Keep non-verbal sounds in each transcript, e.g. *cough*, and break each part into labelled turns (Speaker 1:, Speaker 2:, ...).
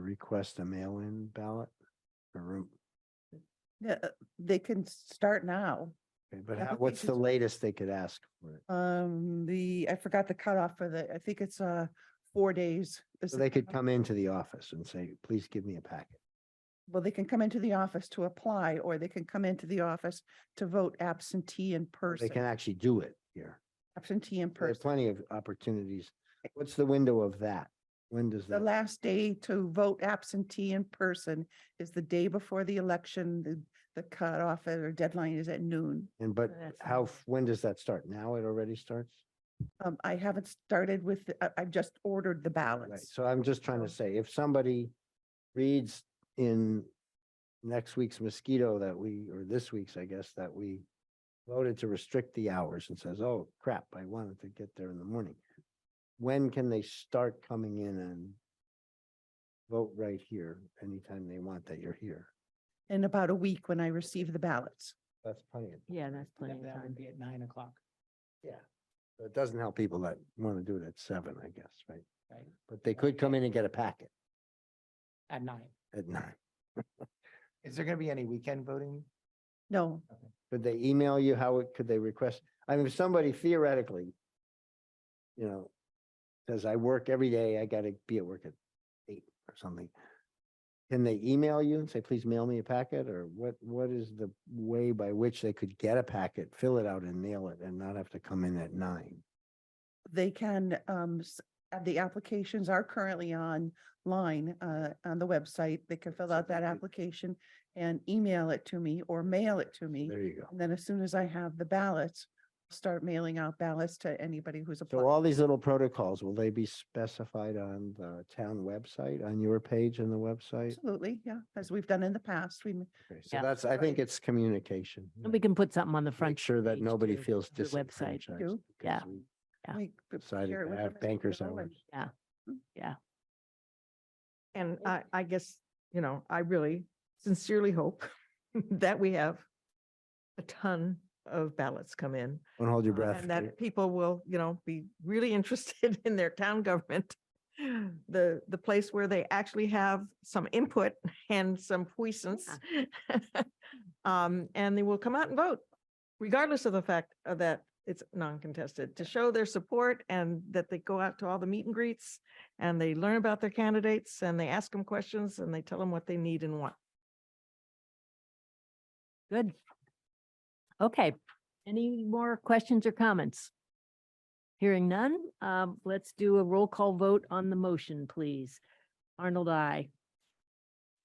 Speaker 1: request a mail-in ballot? Or,
Speaker 2: Yeah, uh, they can start now.
Speaker 1: but how- what's the
Speaker 2: Applications-
Speaker 1: latest they could ask for it?
Speaker 2: Um, the, I forgot the cutoff for the, I think it's, uh, four days. is
Speaker 1: So
Speaker 2: the
Speaker 1: they could
Speaker 2: cutoff.
Speaker 1: come into the office and say, please give me a packet.
Speaker 2: Well, they can come into the office to apply, or they can come into the office to vote absentee in
Speaker 1: They can
Speaker 2: person,
Speaker 1: actually do it here.
Speaker 2: absentee in
Speaker 1: There are
Speaker 2: person.
Speaker 1: plenty of opportunities. What's the window of that? When does
Speaker 2: The
Speaker 1: that?
Speaker 2: last day to vote absentee in person is the day before the election. The, the cutoff or deadline is at noon.
Speaker 1: And but
Speaker 3: That's
Speaker 1: how,
Speaker 3: not-
Speaker 1: f- when does that start? Now it already starts?
Speaker 2: Um, I haven't started with, the- I, I've just ordered the
Speaker 1: Right,
Speaker 2: ballots.
Speaker 1: so I'm just trying to
Speaker 2: So-
Speaker 1: say, if somebody reads in next week's mosquito that we, or this week's, I guess, that we voted to restrict the hours and says, oh crap, I wanted to get there in the morning. When can they start coming in and vote right here anytime they want that you're here?
Speaker 2: In about a week when I receive the ballots.
Speaker 1: That's plenty of,
Speaker 3: Yeah, that's plenty of
Speaker 4: That
Speaker 3: time.
Speaker 4: would be at nine o'clock,
Speaker 1: yeah. So It doesn't help people that want to do it at seven, I guess, right?
Speaker 4: right?
Speaker 1: But they could come in and get a packet
Speaker 4: At nine.
Speaker 1: at nine.
Speaker 4: Is there gonna be any weekend voting?
Speaker 2: No,
Speaker 1: Could they email you? How it- could they request? I mean, if somebody theoretically, you know, says, I work every day, I gotta be at work at eight or something. Can they email you and say, please mail me a packet? Or what, what is the way by which they could get a packet, fill it out and mail it and not have to come in at nine?
Speaker 2: they can, um, s- uh, the applications are currently online, uh, on the website. They can fill
Speaker 1: So
Speaker 2: out
Speaker 1: they
Speaker 2: that
Speaker 1: could-
Speaker 2: application and email it to me or mail it to me.
Speaker 1: There you go.
Speaker 2: And then as soon as I have the ballots, start mailing out ballots to anybody who's
Speaker 1: So
Speaker 2: applied.
Speaker 1: all these little protocols, will they be specified on the town website, on your page in the website?
Speaker 2: Absolutely, yeah, as we've done in the past, we, m-
Speaker 1: Okay, So
Speaker 3: Yeah.
Speaker 1: that's, I think
Speaker 2: Right.
Speaker 1: it's communication.
Speaker 3: And we can put something on the
Speaker 1: Make
Speaker 3: front.
Speaker 1: sure that
Speaker 3: page,
Speaker 1: nobody
Speaker 3: too,
Speaker 1: feels
Speaker 3: of the website.
Speaker 1: disenfranchised.
Speaker 2: Do,
Speaker 1: because
Speaker 3: yeah,
Speaker 1: we
Speaker 3: Yeah.
Speaker 2: we. p-
Speaker 1: Decided
Speaker 2: share it
Speaker 1: to
Speaker 2: with
Speaker 1: have
Speaker 2: everybody
Speaker 1: bankers
Speaker 2: below
Speaker 1: hours.
Speaker 2: and-
Speaker 5: And I, I guess, you know, I really sincerely hope *laughs* that we have a ton of ballots come in.
Speaker 1: Don't hold your
Speaker 5: uh,
Speaker 1: breath.
Speaker 5: And
Speaker 1: Kate.
Speaker 5: that people will, you know, be really *laughs* interested in their town government. *laughs* The, the place where they actually have some input and some puissance. *laughs* Um, and they will come out and vote regardless of the fact of that it's non-contested, to show their support and that they go out to all the meet and greets and they learn about their candidates and they ask them questions and they tell them what they need and want.
Speaker 3: Good. Okay. Any more questions or comments? Hearing none, um, let's do a roll call vote on the motion, please. Arnold, I.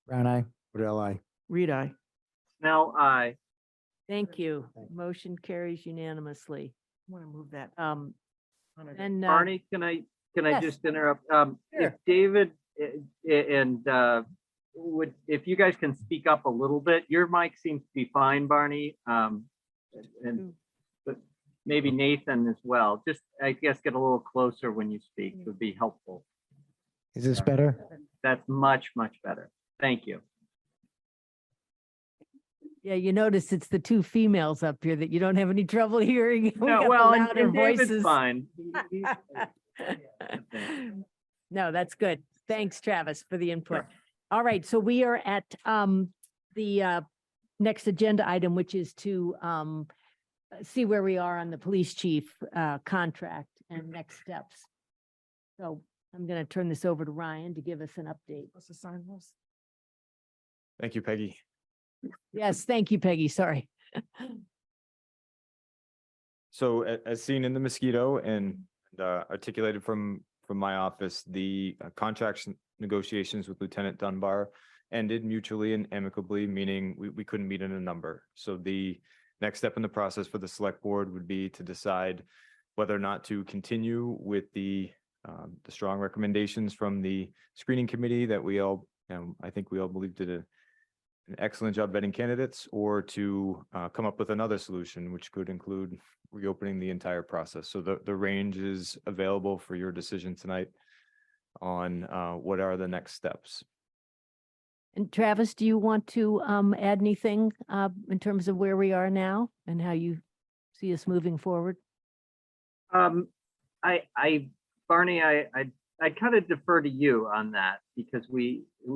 Speaker 4: Brown eye.
Speaker 1: What I?
Speaker 5: Reed, I.
Speaker 4: Now, I.
Speaker 3: Thank you.
Speaker 1: Thank you.
Speaker 3: Motion carries unanimously.
Speaker 5: Want to move that.
Speaker 3: Um,
Speaker 5: on a-
Speaker 3: and. uh,
Speaker 6: Barney, can I, can I
Speaker 3: Yes.
Speaker 6: just interrupt? Um, if
Speaker 3: Sure.
Speaker 6: David eh, eh, and, uh, would, if you guys can speak up a little bit, your mic seems to be fine, Barney. Um,
Speaker 3: Hmm.
Speaker 6: and, but maybe Nathan as well. Just, I guess, get a little closer when you speak
Speaker 3: Hmm.
Speaker 6: would be helpful.
Speaker 4: Is this better?
Speaker 6: That's much, much better. Thank you.
Speaker 3: Yeah, you notice it's the two females up here that you don't have any trouble *laughs* hearing. We got
Speaker 6: No,
Speaker 3: the
Speaker 6: well, and
Speaker 3: louder
Speaker 6: and David's
Speaker 3: voices.
Speaker 6: fine. He- he-
Speaker 3: *laughs* No, that's good. Thanks, Travis, for the input. All right, so we are at um the uh next agenda item, which is to um uh, see where we are on the police chief uh contract and next steps. So I'm going to turn this over to Ryan to give us an update.
Speaker 5: What's the sign was?
Speaker 7: Thank you, Peggy.
Speaker 3: Yes, thank you, Peggy. Sorry.
Speaker 7: So a- as seen in the mosquito and uh, articulated from, from my office, the uh, contracts n- negotiations with Lieutenant Dunbar ended mutually and amicably, meaning we, we couldn't meet in a number. So the next step in the process for the select board would be to decide whether or not to continue with the, um, the strong recommendations from the screening committee that we all, and I think we all believe did a an excellent job vetting candidates, or to uh, come up with another solution, which could include reopening the entire process. So the, the range is available for your decision tonight on uh, what are the next steps.
Speaker 3: And Travis, do you want to um add anything uh in terms of where we are now and how you see us moving forward?
Speaker 6: Um, I, I, Barney, I, I, I kind of defer to you on that because we,